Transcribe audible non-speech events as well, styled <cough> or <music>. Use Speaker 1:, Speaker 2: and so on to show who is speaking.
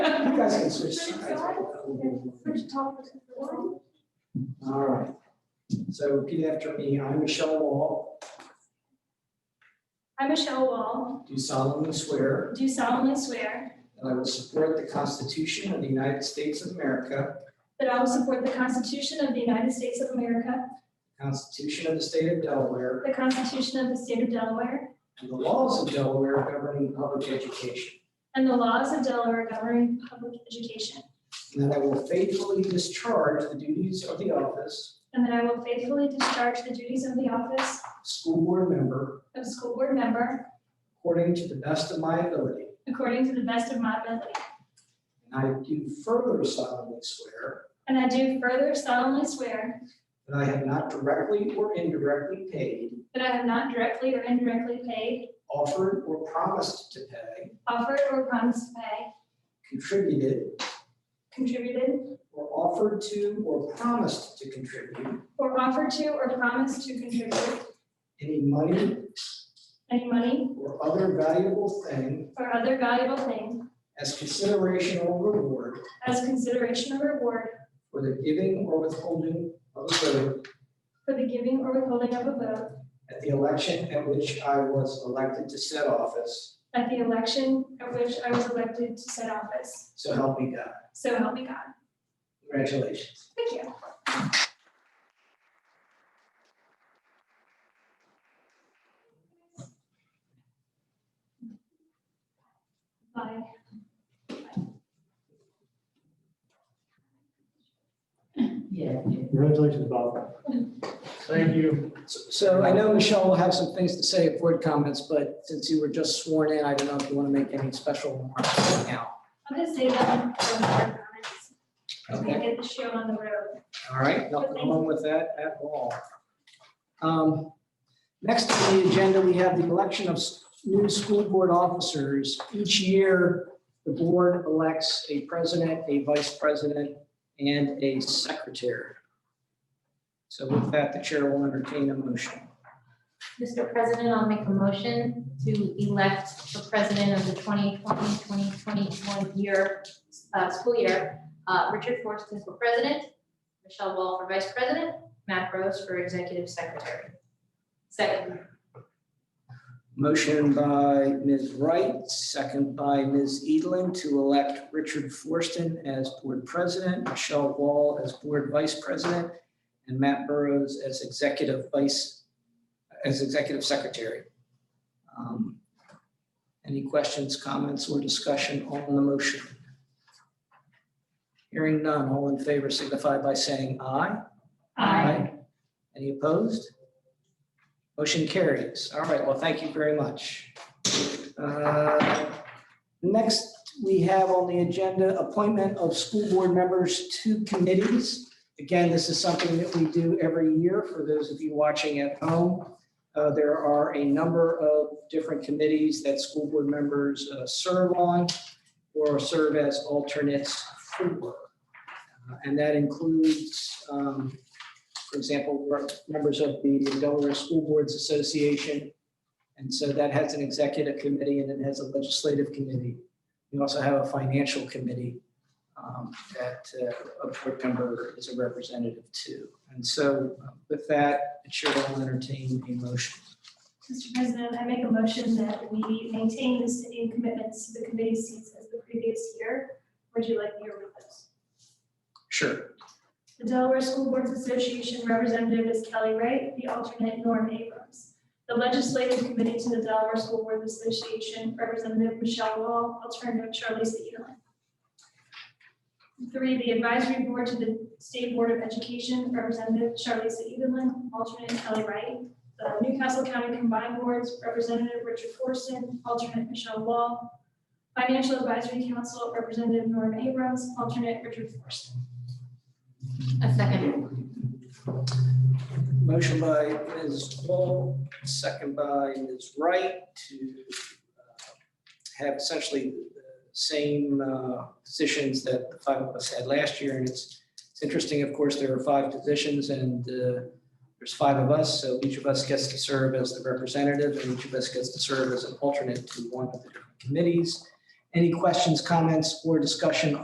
Speaker 1: <laughs>
Speaker 2: asking switch sides.
Speaker 1: Which topic is the one?
Speaker 2: All right. So repeat after me. I, Michelle Wall,
Speaker 1: I, Michelle Wall,
Speaker 2: do solemnly swear
Speaker 1: do solemnly swear
Speaker 2: that I will support the Constitution of the United States of America,
Speaker 1: that I will support the Constitution of the United States of America,
Speaker 2: the Constitution of the State of Delaware,
Speaker 1: the Constitution of the State of Delaware,
Speaker 2: and the laws of Delaware governing public education,
Speaker 1: and the laws of Delaware governing public education,
Speaker 2: and that I will faithfully discharge the duties of the office,
Speaker 1: and that I will faithfully discharge the duties of the office
Speaker 2: of school board member,
Speaker 1: of school board member
Speaker 2: according to the best of my ability.
Speaker 1: according to the best of my ability.
Speaker 2: And I do further solemnly swear
Speaker 1: And I do further solemnly swear
Speaker 2: that I have not directly or indirectly paid,
Speaker 1: that I have not directly or indirectly paid,
Speaker 2: offered or promised to pay,
Speaker 1: offered or promised to pay,
Speaker 2: contributed,
Speaker 1: contributed,
Speaker 2: or offered to or promised to contribute
Speaker 1: or offered to or promised to contribute
Speaker 2: any money
Speaker 1: any money
Speaker 2: or other valuable thing
Speaker 1: or other valuable thing
Speaker 2: as consideration or reward
Speaker 1: as consideration or reward
Speaker 2: for the giving or withholding of a vote
Speaker 1: for the giving or withholding of a vote
Speaker 2: at the election at which I was elected to said office,
Speaker 1: at the election at which I was elected to said office.
Speaker 2: so help me God.
Speaker 1: So help me God.
Speaker 2: Congratulations.
Speaker 1: Thank you. Bye.
Speaker 3: Yeah.
Speaker 4: Congratulations, Bob. Thank you.
Speaker 2: So- So I know Michelle will have some things to say at board comments, but since you were just sworn in, I don't know if you want to make any special remarks right now.
Speaker 1: I'm gonna save that one for more comments. I'm
Speaker 2: Okay.
Speaker 1: gonna get the show on the road.
Speaker 2: All right, nothing wrong with that at all. Um, Next on the agenda, we have the election of s- new school board officers. Each year, the board elects a president, a vice president, and a secretary. So with that, the chair will entertain a motion.
Speaker 3: Mr. President, I'll make a motion to elect the president of the 2020-2021 year, uh, school year, uh, Richard Forston for president, Michelle Wall for vice president, Matt Rose for executive secretary. Second.
Speaker 2: Motion by Ms. Wright, second by Ms. Edlin to elect Richard Forston as board president, Michelle Wall as board vice president, and Matt Burrows as executive vice, as executive secretary. Um, Any questions, comments, or discussion on the motion? Hearing none, all in favor signify by saying aye. Any opposed? Motion carries. All right, well, thank you very much. Uh, Next, we have on the agenda appointment of school board members to committees. Again, this is something that we do every year for those of you watching at home. Uh, There are a number of different committees that school board members uh, serve on or serve as alternates for. Uh, And that includes um, for example, we're members of the Delaware School Boards Association. And so that has an executive committee and it has a legislative committee. We also have a financial committee um, that uh, a board member is a representative to. And so uh, with that, the chair will entertain a motion.
Speaker 1: Mr. President, I make a motion that we maintain the city commitments to the committee seats as the previous year. Would you like me to read those?
Speaker 2: Sure.
Speaker 1: The Delaware School Boards Association representative is Kelly Wright, the alternate Norm Abrams. The Legislative Committee to the Delaware School Boards Association, Representative Michelle Wall, alternative Charlize Edelin. Three, the Advisory Board to the State Board of Education, Representative Charlize Edelin, alternate Kelly Wright. The Newcastle County Combined Boards, Representative Richard Forson, alternate Michelle Wall. Financial Advisory Council, Representative Norm Abrams, alternate Richard Forson.
Speaker 3: A second.
Speaker 2: Motion by Ms. Wall, second by Ms. Wright to uh, have essentially the same uh, positions that the five of us had last year. And it's, it's interesting, of course, there are five positions and uh, there's five of us. So each of us gets to serve as the representative and each of us gets to serve as an alternate to one of the different committees. Any questions, comments, or discussion